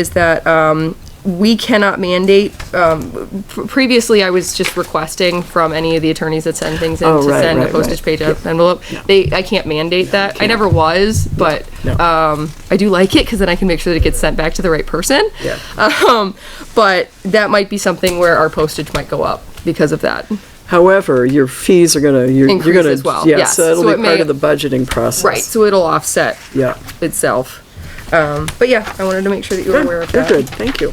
is that um, we cannot mandate, um, pr- previously I was just requesting from any of the attorneys that send things in Oh, to right, send a right, postage right. paid up envelope. They, I can't mandate that. I never was, but No. um, I do like it because then I can make sure that it gets sent back to the right person. Yeah. Um, but that might be something where our postage might go up because of that. However, your fees are gonna, you're, you're Increase gonna. as well, Yeah, yes. so it'll So be it part may- of the budgeting process. Right, so it'll offset Yeah. itself. Um, but yeah, I wanted to make sure that you were Good, aware of you're that. good, thank you.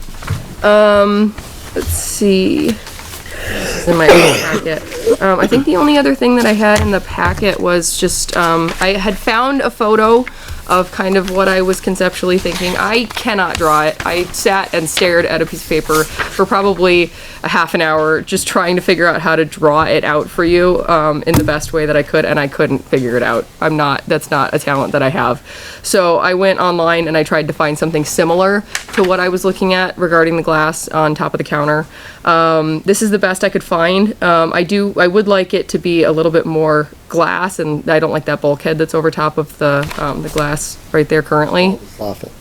Let's see. This is in my other packet. Um, I think the only other thing that I had in the packet was just, um, I had found a photo of kind of what I was conceptually thinking. I cannot draw it. I sat and stared at a piece of paper for probably a half an hour, just trying to figure out how to draw it out for you, um, in the best way that I could, and I couldn't figure it out. I'm not, that's not a talent that I have. So I went online and I tried to find something similar to what I was looking at regarding the glass on top of the counter. Um, this is the best I could find. Um, I do, I would like it to be a little bit more glass, and I don't like that bulkhead that's over top of the, um, the glass right there currently. Soffit.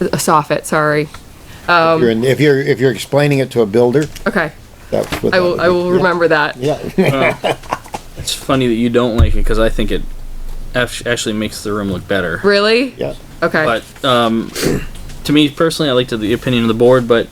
A soffit, sorry. Um, If you're, in- if you're, if you're explaining it to a builder, Okay, that's what. I that will, would I be. will Yeah. remember that. Yeah, It's funny that you don't like it because I think it act- actually makes the room look better. Really? yeah. Okay, But um, to me personally, I like to the opinion of the board, but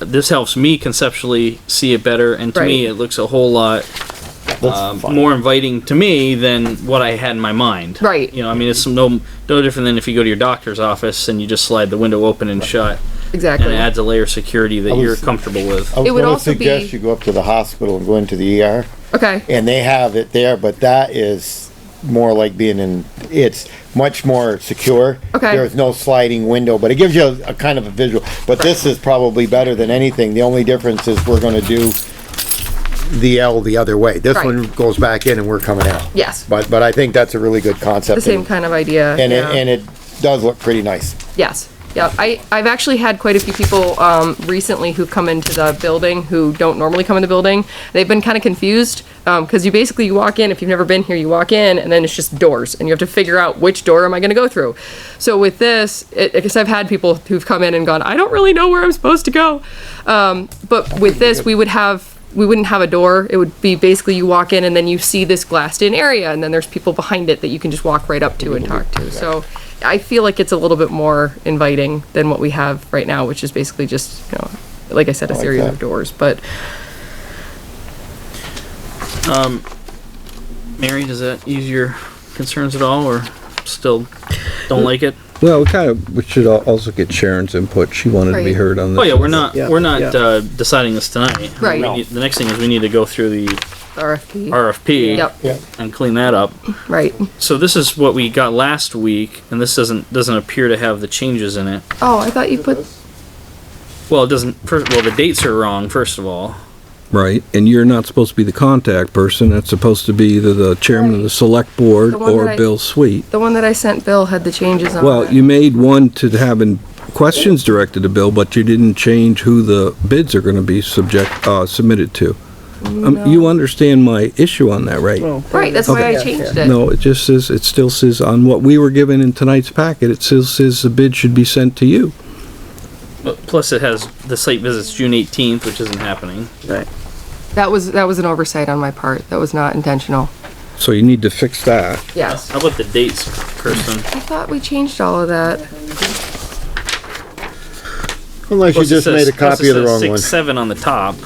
this helps me conceptually see it better, and to me, Right. it looks a whole lot um, That's fine. more inviting to me than what I had in my mind. Right. You know, I mean, it's no no different than if you go to your doctor's office and you just slide the window open and shut, and exactly. it adds a layer of security that was- you're comfortable with. I was It would gonna also be- Suggest you go up to the hospital and go into the ER, Okay, and they have it there, but that is more like being in, it's much more secure. Okay. There's no sliding window, but it gives you a, a kind of a visual, but this is probably better than anything, the only difference is we're gonna do the L the other way, this Right. one goes back in and we're coming out. yes, But, but I think that's a really good concept. the same and- kind of idea. And it, yeah. and it does look pretty nice. Yes, yeah, I, I've actually had quite a few people, um, recently who've come into the building who don't normally come in the building. They've been kind of confused, um, cause you basically, you walk in, if you've never been here, you walk in and then it's just doors and you have to figure out which door am I gonna go through. So with this, it, I guess I've had people who've come in and gone, I don't really know where I'm supposed to go. Um, but with this, we would have, we wouldn't have a door. It would be basically you walk in and then you see this glassed in area and then there's people behind it that you can just walk right up to and talk to. So I feel like it's a little bit more inviting than what we have right now, which is basically just, you know, like I said, a like series that. of doors, but Mary, does that ease your concerns at all, or still don't like it? Well, we kind of, we should al- also get Sharon's input. She wanted to be Right. heard on this. Oh yeah, we're not Yeah, we're not yeah. uh, deciding this tonight. Right. We No. need- the next thing is we need to go through the RFP. RFP Yep, Yeah. and clean that up. right. So this is what we got last week, and this doesn't doesn't appear to have the changes in it. Oh, I thought you put, Well, it doesn't. First, well, the dates are wrong. First of all, Right, and you're not supposed to be the contact person. It's supposed to be either the chairman of the select board The one that or I- Bill Sweet. the one that I sent Bill had the changes on it. Well, you made one to having questions directed to Bill, but you didn't change who the bids are gonna be subject, uh, submitted to. Um, you understand my issue on that, right? Right, that's why I Okay. changed it. No, it just says, it still says on what we were given in tonight's packet, it still says the bid should be sent to you. but plus it has the site visits June 18th, which isn't happening. Right. That was, that was an oversight on my part. That was not intentional. So you need to fix that. Yes. How about the dates, Kirsten? I thought we changed all of that. Unless you Plus it just says- made a plus it copy of the says wrong six one. seven on the top.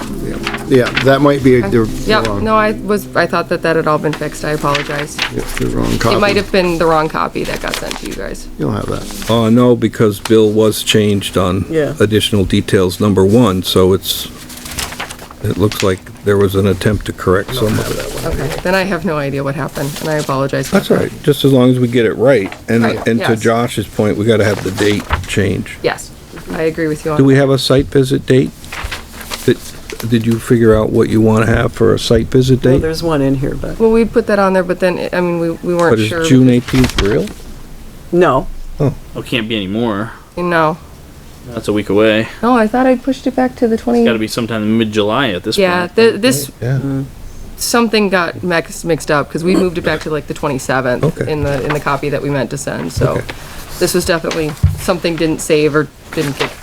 Yeah, that might be the the Yep, wrong. no, I was, I thought that that had all been fixed. I apologize. It's the wrong It might copy. have been the wrong copy that got sent to you guys. You'll have that. Uh, no, because Bill was changed on Yeah. additional details, number one, so it's, it looks like there was an attempt to correct some of it. Okay, then I have no idea what happened, and I apologize. for That's that. all right, just as long as we get it right. And, Right, and to yes. Josh's point, we gotta have the date change. Yes, I agree with you on Do we have a site visit date? Did, did you figure out what you wanna have for a site visit Well, date? there's one in here, but, Well, we put that on there, but then, I mean, we, we But weren't sure. is June eighteenth real? no, Oh, can't be anymore. No, That's a week away. no, I thought I pushed it back to the twenty. Got to be sometime mid-July at this Yeah, point. th- this, Yeah. something got mixed, mixed up, because we moved it back to like the twenty-seventh Okay. in the, in the copy that we meant to send, so. Okay. This was definitely, something didn't save or didn't get